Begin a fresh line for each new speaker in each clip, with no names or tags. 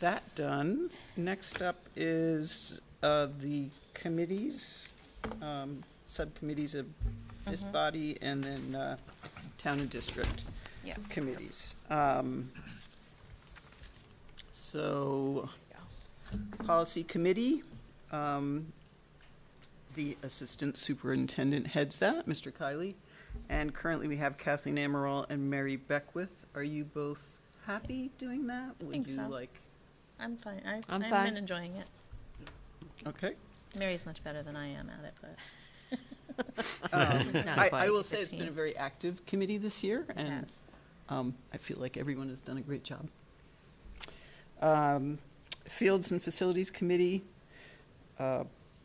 that done. Next up is uh, the committees, um, subcommittees of this
Mm-hmm.
body and then uh, town and district
Yeah.
committees. Um, So, policy committee, um, the assistant superintendent heads that, Mr. Kiley. And currently, we have Kathleen Amaral and Mary Beckwith. Are you both happy doing that?
think
Would
so.
you like,
I'm fine. I,
I'm
I'm
fine.
enjoying it.
okay.
Mary's much better than I am at it, but
Um, I, I will
It's a
say it's been a
team.
very active committee this year, and
yes.
um, I feel like everyone has done a great job. Um, Fields and Facilities Committee, uh,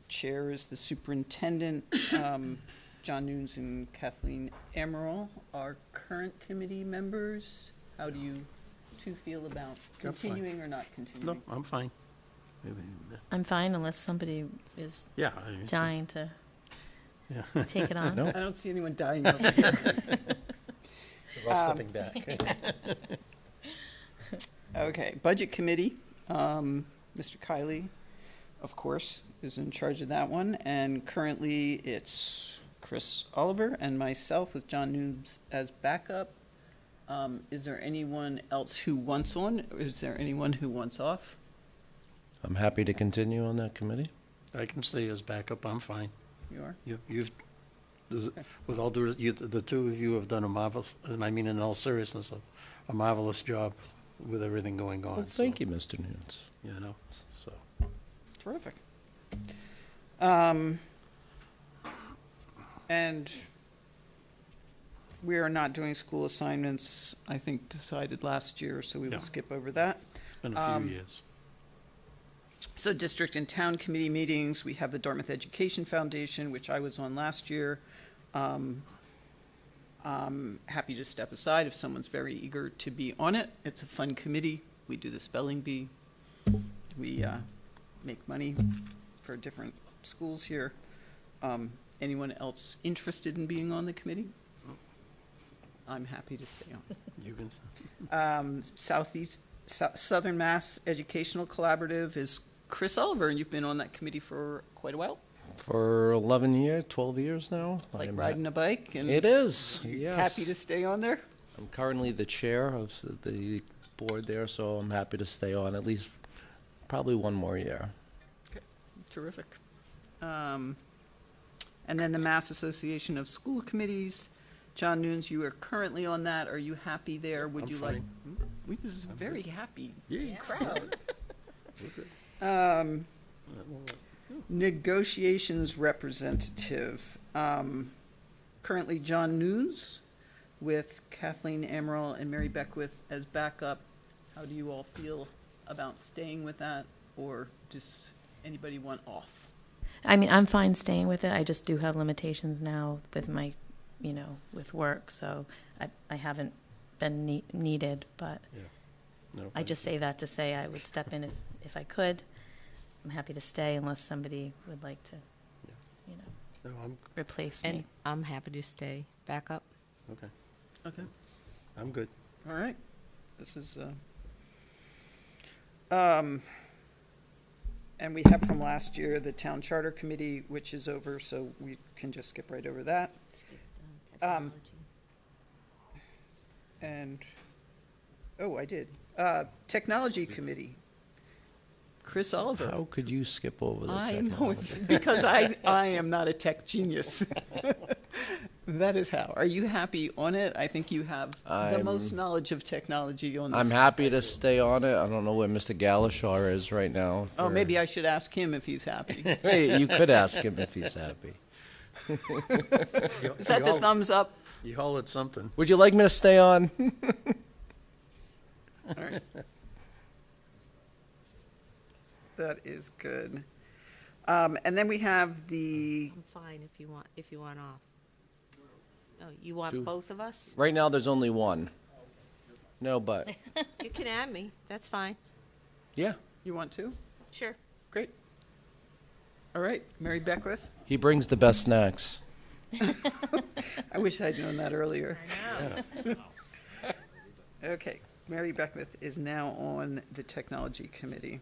Chair is the Superintendent. Um, John Nunes and Kathleen Emerald are current committee members. How do you two feel about
That's fine.
continuing or not
No,
continuing?
I'm fine.
I'm fine unless somebody is
Yeah. I-
dying to
Yeah.
take it on.
No.
I don't see anyone dying over here.
We're all stepping back.
Um,
Okay, Budget Committee, um, Mr. Kiley, of course, is in charge of that one, and currently it's Chris Oliver and myself with John Noobs as backup. Um, is there anyone else who wants on? Is there anyone who wants off?
I'm happy to continue on that committee.
I can stay as backup, I'm fine.
You are?
You- You've, there's- with all due, res- you- the two of you have done a marvelous, and I mean in all seriousness, a- a marvelous job with everything going on.
Well, thank you, Mr. Nunes.
You know, s- so.
Terrific. Um, and we are not doing school assignments, I think decided last year, so we
Yeah.
will skip over that.
Been a
Um,
few years.
So district and town committee meetings, we have the Dartmouth Education Foundation, which I was on last year. Um, I'm happy to step aside if someone's very eager to be on it. It's a fun committee. We do the spelling bee. We uh, make money for different schools here. Um, Anyone else interested in being on the committee? I'm happy to stay on
You can, s-
um, Southeast, Sou- Southern Mass Educational Collaborative is Chris Oliver, and you've been on that committee for quite a while,
For 11 years, 12 years now. I
like
am
riding a bike
ha-
and.
It is, yes.
Happy to stay on there?
I'm currently the chair of s- the board there, so I'm happy to stay on at least probably one more year.
Terrific. Um, And then the Mass Association of School Committees, John Nunes, you are currently on that. Are you happy there? Would
I'm
you like? Hmm? We, this is a very happy crowd. Um, Negotiations representative, um, currently John Nunes with Kathleen Amaral and Mary Beckwith as backup. How do you all feel about staying with that, or does anybody want off?
I mean, I'm fine staying with it. I just do have limitations now with my, you know, with work, so I, I haven't been nee- needed, but
no,
I just say that to say I would step in if, if I could. I'm happy to stay unless somebody would like to,
Yeah.
you know,
No, I'm,
replace me.
And I'm happy to stay back up.
okay,
Okay.
I'm good.
All right, this is, uh, um, and we have from last year the Town Charter Committee, which is over, so we can just skip right over that. Um, And, oh, I did. Uh, Technology Committee. Chris Oliver.
How could you skip over the
I know, it's
technology?
because I, I am not a tech genius. That is how. Are you happy on it? I think you have the most
I'm-
knowledge of technology on this.
I'm happy to stay on it. I don't know where Mr. Galashaw is right now.
Oh,
for-
maybe I should ask him if he's happy.
Hey, you could ask him if he's happy.
Is that the thumbs up?
You hollered something.
Would you like me to stay on?
That is good. Um, and then we have the,
I'm fine if you want, if you want off. Oh, you want
Two.
both of us?
Right now, there's only one. No, but,
You can add me, that's fine,
yeah.
you want to?
sure.
Great. All right, Mary Beckwith.
He brings the best snacks.
I wish I'd known that earlier. Okay, Mary Beckwith is now on the Technology Committee.